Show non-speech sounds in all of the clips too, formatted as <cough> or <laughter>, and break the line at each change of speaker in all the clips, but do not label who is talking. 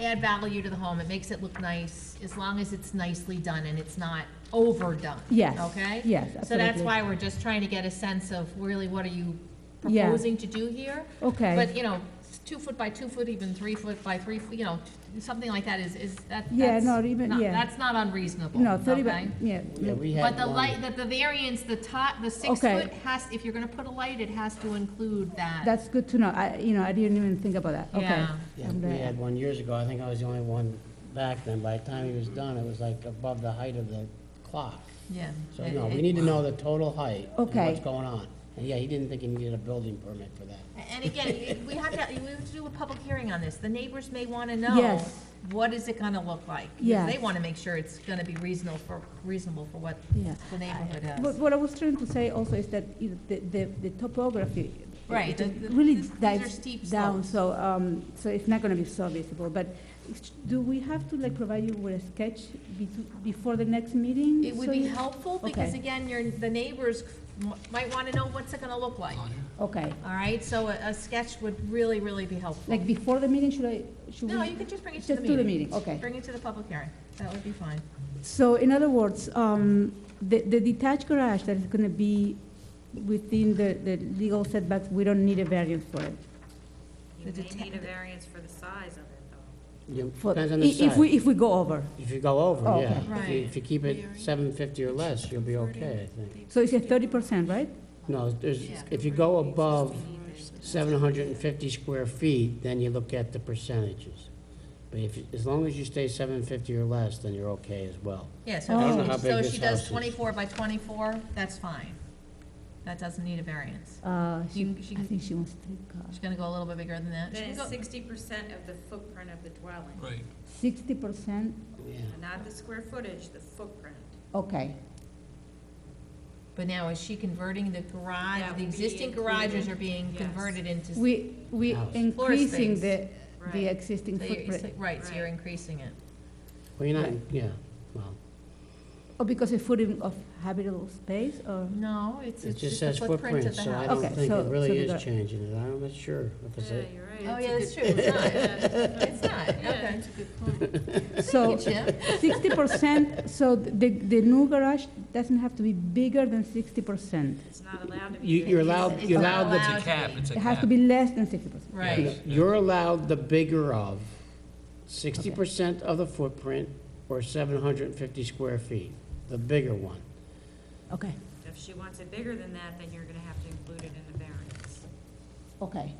add value to the home, it makes it look nice, as long as it's nicely done and it's not overdone.
Yes,
Okay?
yes,
So that's
absolutely.
why we're just trying to get a sense of really what are you
Yeah.
proposing to do here?
Okay.
But, you know, s- two foot by two foot, even three foot by three, foot, you know, something like that is, is, that, that's.
Yeah, not even-
not-
yeah.
That's not unreasonable.
No, thirty,
okay?
by- yeah,
Yeah, we had
But the
one-
light, the, the variance, the top, the six
Okay.
foot has, if you're gonna put a light, it has to include that.
that's good to know, I, you know, I didn't even think about that, okay. uh,
Yeah.
Yeah,
I'm
we
gonna-
had one years ago, I think I was the only one back then, by the time he was done, it was like above the height of the clock.
Yeah.
So,
It-
no, we
it-
need to know the total height. and
Okay.
What's going on. And yeah, he didn't think he needed a building permit for that.
And again, we have to, we have to do a public hearing on this. The neighbors may want to know,
Yes.
what is it going to look like? Because
Yes.
They want to make sure it's going to be reasonable for, reasonable for what
Yeah.
the neighborhood
But
has.
what I was trying to say also is that you know, the, the, the topography.
Right,
it-
the-
it
the-
Really
these- these are
dives
steep
down,
slopes.
so, um, so it's not gonna be so visible, but it's- do we have to like provide you with a sketch be- before the next meeting?
It would
so
be
you-
helpful because
Okay.
again, your, the neighbors might want to know what's it going to look like.
Okay,
All right, so a, a sketch would really, really be helpful.
like before the meeting, should I, should we?
No, you can just bring it to the
Just
meeting.
do the meeting, okay.
Bring it to the public hearing. That would be fine.
So in other words, um, the, the detached garage that is gonna be within the, the legal setbacks, we don't need a variance for it.
The
You may
deta-
need a variance for the size of it, though.
You-
For-
Depends on
i-
the
If we,
size.
if we go over,
If you go over,
Oh,
yeah.
okay.
If you-
Right.
If you keep it seven fifty or less, you'll be okay, I think.
so it's a thirty percent, right?
No, there's, if you go above seven hundred and fifty square feet, then you look at the percentages. But if, you- as long as you stay seven fifty or less, then you're okay as well.
Yeah,
I don't
so,
know
if
how
she-
big
so
this
she
house
does
is.
twenty-four by twenty-four, that's fine. That doesn't need a variance.
Uh, she,
You- she
I
can-
think she wants three cars.
She's gonna go a little bit bigger than that. She
Then
can
it's
go-
sixty percent of the footprint of the dwelling,
Right.
Sixty percent,
Yeah.
not the square footage, the footprint.
okay.
But now, is she converting the garage,
That
the
would be
existing garages
included,
are being
yes.
converted into? s-
We, we
House.
Floor
increasing the,
space.
the
Right.
existing
so you're- so-
footprint.
Right, so you're
Right.
increasing it.
Well, you're not, yeah, well,
Oh, because a footing of habitable space
<laughs>
or,
No, it's,
it
it's
just
just the
says
footprint
footprint,
of the
so I
house.
don't
Okay,
think
so-
it
so
really
we
is
got-
changing it. I'm not sure if it's
Yeah,
a,
you're right.
Oh,
It's a
yeah, that's
good-
true, it's not,
Yeah,
<laughs> it's not, okay.
that's a good point.
so
Thank you, Jim.
sixty percent, so the, the new garage doesn't have to be bigger than sixty percent.
It's not allowed to be.
You- <laughs> you're
big.
allowed-
It's
you're
not
allowed the-
It's a cap,
to be.
it's a
It
cap.
has to be less than sixty percent.
Right,
you're allowed the bigger of sixty percent of the footprint or seven hundred and fifty square feet, the bigger one.
Okay,
If she wants it bigger than that, then you're gonna have to include it in the variance.
okay.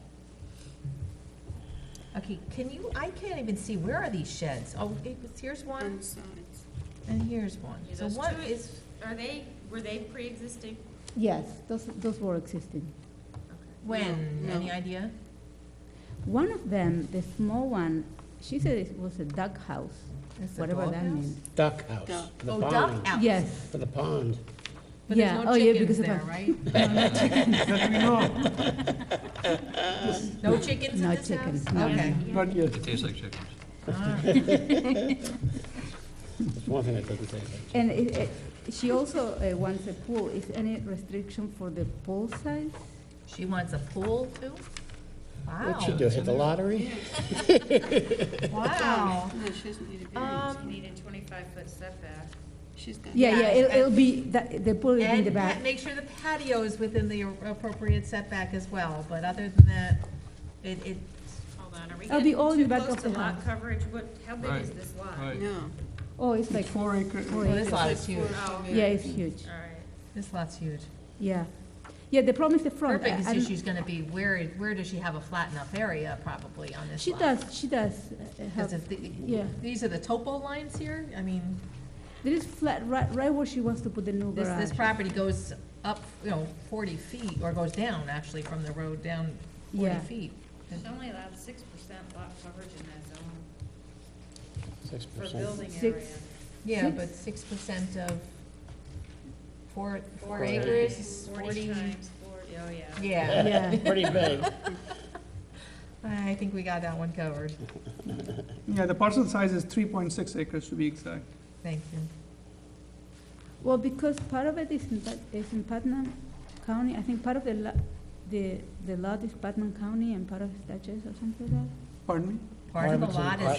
okay, can you, I can't even see, where are these sheds? Oh, it was- here's one, and here's one.
Yeah,
So
those
what
two-
is,
Are they, were they pre-existing?
Yes, those, those were existing.
when, any idea?
One of them, the small one, she said it was a duck house,
It's a
whatever that
doghouse?
means.
Duck house, the
Oh, duck
pond,
house.
Yes.
for the pond.
But there's
Yeah.
no
Oh, yeah,
chickens
because of
there,
that.
right?
<laughs>
No chickens in
No
this house?
chickens, no.
Okay.
But you,
It tastes like chicken.
All right.
That's one thing that doesn't take much.
And it, it, she also uh, wants a pool. Is any restriction for the pool size?
She wants a pool too?
What'd she
Wow,
do, hit the lottery?
wow.
No, she doesn't need a variance.
You
Um,
need a twenty-five foot setback.
She's got.
Yeah, yeah,
Yeah,
it'll,
I-
it'll be, that- the pool will be in the
And pa-
back.
make sure the patio is within the appropriate setback as well, but other than that, it, it,
Hold on, are we
Oh,
It'll
getting
be all in
too
the back
close
of
to
the
lot
house.
coverage? What, how big
Right.
is this lot?
Right.
No.
Oh, it's like,
It's four acre.
Four
well, this
acres.
lot is huge.
Oh, okay.
yeah, it's huge,
All right.
This lot's huge.
yeah. Yeah, the problem is the
Her
front. I-
biggest
I'm-
issue's gonna be where, where does she have a flat enough area probably on this
She
lot?
does, she does uh,
Because
have,
if, the-
yeah.
these are the topo lines here, I mean.
there is flat, right, right where she wants to put the new
This,
garage.
this property goes up, you know, forty feet, or goes down, actually, from the road down forty
Yeah.
feet.
There's only allowed six percent lot coverage in that zone
Six <laughs>
for
percent.
building area.
Six.
Yeah,
Six-
but six percent of four, four
Four
acres,
times-
is
Forty
forty.
times forty, oh, yeah.
Yeah,
Yeah,
Pretty big.
I think we got that one covered,
yeah, the parcel size is three point six acres to be exact.
thank you.
well, because part of it is in, Pat- is in Putnam County. I think part of the lot, the, the lot is Putnam County and part of it is Dutchess or something like that.
Pardon me?
Part of the
Arbitrary
lot is
question.